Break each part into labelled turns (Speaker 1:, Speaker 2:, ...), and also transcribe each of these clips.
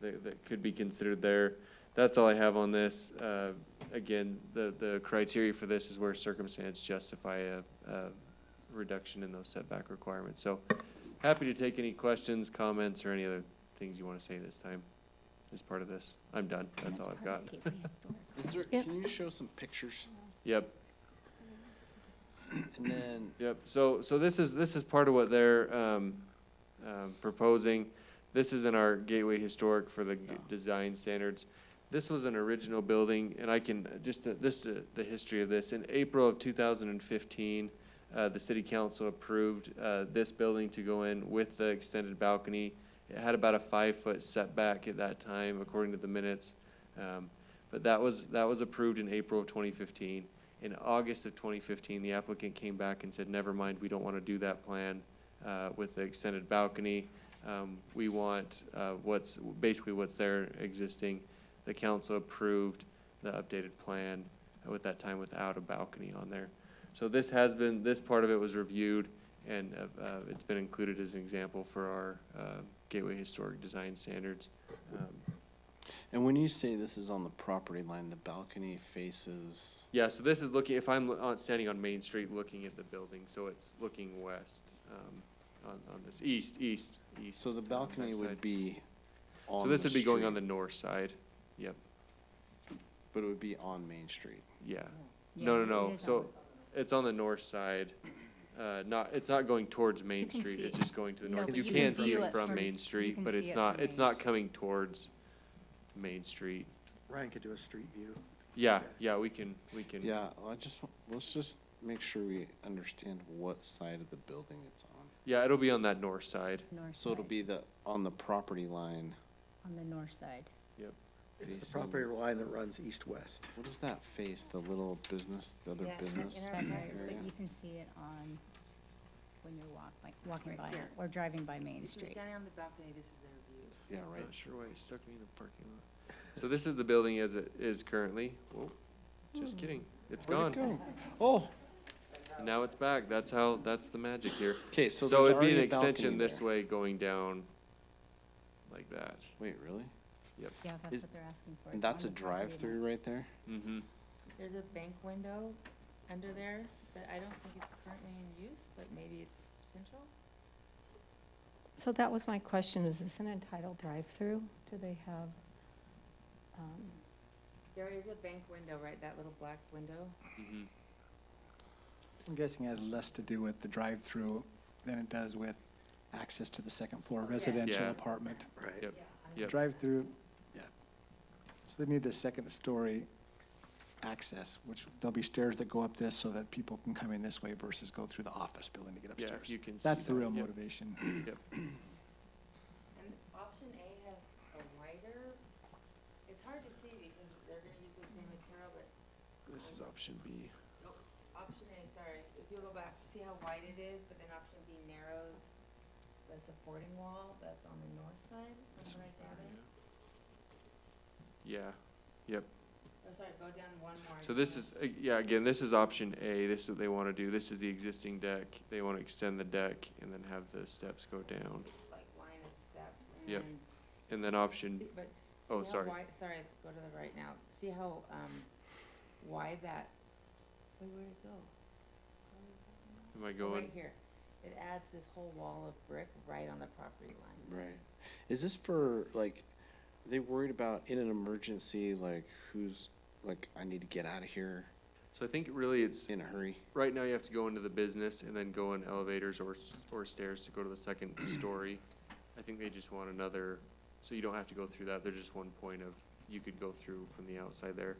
Speaker 1: that, that could be considered there. That's all I have on this. Uh, again, the, the criteria for this is where circumstance justify a, a reduction in those setback requirements. So happy to take any questions, comments, or any other things you want to say this time as part of this. I'm done. That's all I've got.
Speaker 2: Is there,
Speaker 3: Yep.
Speaker 2: can you show some pictures?
Speaker 1: Yep.
Speaker 2: And then,
Speaker 1: Yep, so, so this is, this is part of what they're, um, um, proposing. This is in our Gateway Historic for the g-
Speaker 2: Yeah.
Speaker 1: design standards. This was an original building, and I can, just, to- this, to- the history of this, in April of two thousand and fifteen, uh, the city council approved, uh, this building to go in with the extended balcony. It had about a five-foot setback at that time, according to the minutes. Um, but that was, that was approved in April of twenty fifteen. In August of twenty fifteen, the applicant came back and said, never mind, we don't want to do that plan uh, with the extended balcony. Um, We want uh, what's, basically what's there existing. The council approved the updated plan with that time without a balcony on there. So this has been, this part of it was reviewed and uh, uh, it's been included as an example for our uh, Gateway Historic Design Standards. Um,
Speaker 2: and when you say this is on the property line, the balcony faces,
Speaker 1: Yeah, so this is looking, if I'm lo- on- standing on Main Street looking at the building, so it's looking west um, on, on this, east, east, east.
Speaker 2: so the
Speaker 1: on
Speaker 2: balcony would
Speaker 1: backside.
Speaker 2: be on
Speaker 1: So
Speaker 2: the
Speaker 1: this would be going on the
Speaker 2: street,
Speaker 1: north side,
Speaker 2: But it would be on Main Street.
Speaker 1: yeah. No, no, no, so it's on the north side, uh, not, it's not going towards Main
Speaker 4: can
Speaker 1: Street,
Speaker 4: see
Speaker 1: it's
Speaker 4: it.
Speaker 1: just going to the
Speaker 4: No,
Speaker 1: north.
Speaker 4: but
Speaker 1: You
Speaker 2: you
Speaker 1: can
Speaker 2: can
Speaker 1: see
Speaker 2: view
Speaker 1: it
Speaker 4: it
Speaker 1: from
Speaker 4: from-
Speaker 1: Main
Speaker 4: you
Speaker 1: Street,
Speaker 4: can
Speaker 1: but
Speaker 4: see
Speaker 1: it's
Speaker 4: it
Speaker 1: not,
Speaker 4: from
Speaker 1: it's
Speaker 4: Main
Speaker 1: not
Speaker 4: Street.
Speaker 1: coming towards Main Street.
Speaker 5: Ryan could do a street view.
Speaker 1: Yeah,
Speaker 5: Okay.
Speaker 1: yeah, we can, we can.
Speaker 2: Yeah, I just, wa- let's just make sure we understand what side of the building it's on.
Speaker 1: Yeah, it'll be on that north side,
Speaker 2: So it'll be the, on the property line,
Speaker 4: On the north side.
Speaker 5: It's the
Speaker 2: Facing-
Speaker 5: property line that runs east-west.
Speaker 2: what does that face, the little business, the other business
Speaker 4: But
Speaker 2: area?
Speaker 4: you can see it on, when you're walk, like, walking
Speaker 6: Right
Speaker 4: by
Speaker 6: here.
Speaker 4: or driving by Main
Speaker 6: If you're
Speaker 4: Street.
Speaker 6: standing on the balcony, this is their view.
Speaker 2: Yeah,
Speaker 1: I'm
Speaker 2: right,
Speaker 1: not sure why it stuck me in the parking lot. So this is the building as it is currently, whoa, just kidding, it's
Speaker 2: Hmm. Where'd it
Speaker 1: gone,
Speaker 2: go? Oh,
Speaker 1: And now it's back, that's how, that's the magic here.
Speaker 2: okay, so
Speaker 1: So
Speaker 2: there's
Speaker 1: it'd be an
Speaker 2: already a
Speaker 1: extension
Speaker 2: balcony
Speaker 1: this
Speaker 2: there.
Speaker 1: way going down like that.
Speaker 2: Wait, really?
Speaker 4: Yeah,
Speaker 2: Is-
Speaker 4: that's what they're asking for. It's
Speaker 2: And
Speaker 4: on
Speaker 2: that's a
Speaker 4: the property line.
Speaker 2: drive-through right there?
Speaker 1: Mm-hmm.
Speaker 6: There's a bank window under there that I don't think it's currently in use, but maybe it's potential.
Speaker 7: So that was my question, is this an entitled drive-through? Do they have, um,
Speaker 6: There is a bank window, right, that little black window?
Speaker 1: Mm-hmm.
Speaker 8: I'm guessing it has less to do with the drive-through than it does with access to the second floor residential
Speaker 1: Yeah.
Speaker 8: apartment.
Speaker 5: Right.
Speaker 1: Yep. Yep.
Speaker 8: Drive-through, yeah. So they need the second story access, which there'll be stairs that go up this so that people can come in this way versus go through the office building to get
Speaker 1: Yeah, if
Speaker 8: upstairs.
Speaker 1: you can see
Speaker 8: That's the
Speaker 1: that,
Speaker 8: real
Speaker 1: yep.
Speaker 8: motivation.
Speaker 6: And option A has a wider, it's hard to see because they're gonna use the same material, but,
Speaker 1: This is option B.
Speaker 6: oh, option A, sorry, if you go back, see how wide it is, but then option B narrows the supporting wall that's on the north side, remember right there? babe?
Speaker 1: Yeah,
Speaker 6: Oh, sorry, go down one more.
Speaker 1: so this
Speaker 6: down.
Speaker 1: is, uh, yeah, again, this is option A, this is what they wanna do, this is the existing deck, they wanna extend the deck and then have the steps go down.
Speaker 6: like line of steps and
Speaker 1: Yep.
Speaker 6: then-
Speaker 1: And then option,
Speaker 6: See- But s- see
Speaker 1: Oh,
Speaker 6: how
Speaker 1: sorry.
Speaker 6: wide, sorry, go to the right now. See how, um, wide that, wait, where'd it go? Where did it go?
Speaker 1: am I
Speaker 6: Oh,
Speaker 1: going?
Speaker 6: Right here. It adds this whole wall of brick right on the property line.
Speaker 2: Right. Is this for, like, are they worried about in an emergency, like, who's, like, I need to get out of here
Speaker 1: So I think really it's,
Speaker 2: in a hurry?
Speaker 1: right now you have to go into the business and then go in elevators or, s- or stairs to go to the second story. I think they just want another, so you don't have to go through that, there's just one point of, you could go through from the outside there.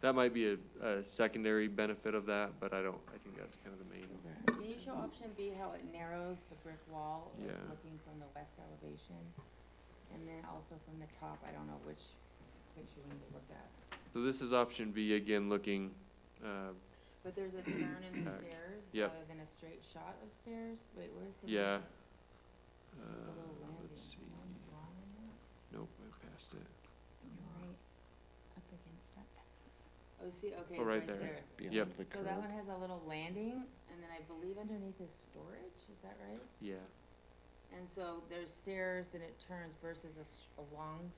Speaker 1: That might be a, a secondary benefit of that, but I don't, I think that's kind of the main,
Speaker 2: Okay.
Speaker 6: Can you show option B how it narrows the brick wall? like,
Speaker 1: Yeah.
Speaker 6: Looking from the west elevation? And then also from the top, I don't know which picture we need to look at.
Speaker 1: so this is option B again, looking, uh,
Speaker 6: But there's a turn in the
Speaker 1: Back.
Speaker 6: stairs
Speaker 1: Yep.
Speaker 6: rather than a straight shot of stairs. Wait, where's the?
Speaker 1: yeah.
Speaker 6: one-
Speaker 1: Uh,
Speaker 6: the Mm-hmm. little landing?
Speaker 1: let's see,
Speaker 6: Am I wrong on that?
Speaker 1: nope, I passed it,
Speaker 6: I'm
Speaker 4: Right
Speaker 6: lost.
Speaker 4: up against that fence.
Speaker 6: Oh, see, okay,
Speaker 1: Oh, right
Speaker 6: right
Speaker 1: there.
Speaker 6: there.
Speaker 2: Beyond the
Speaker 6: So that
Speaker 2: curb?
Speaker 6: one has a little landing and then I believe underneath is storage, is that right?
Speaker 1: yeah.
Speaker 6: And so there's stairs, then it turns versus a s- a long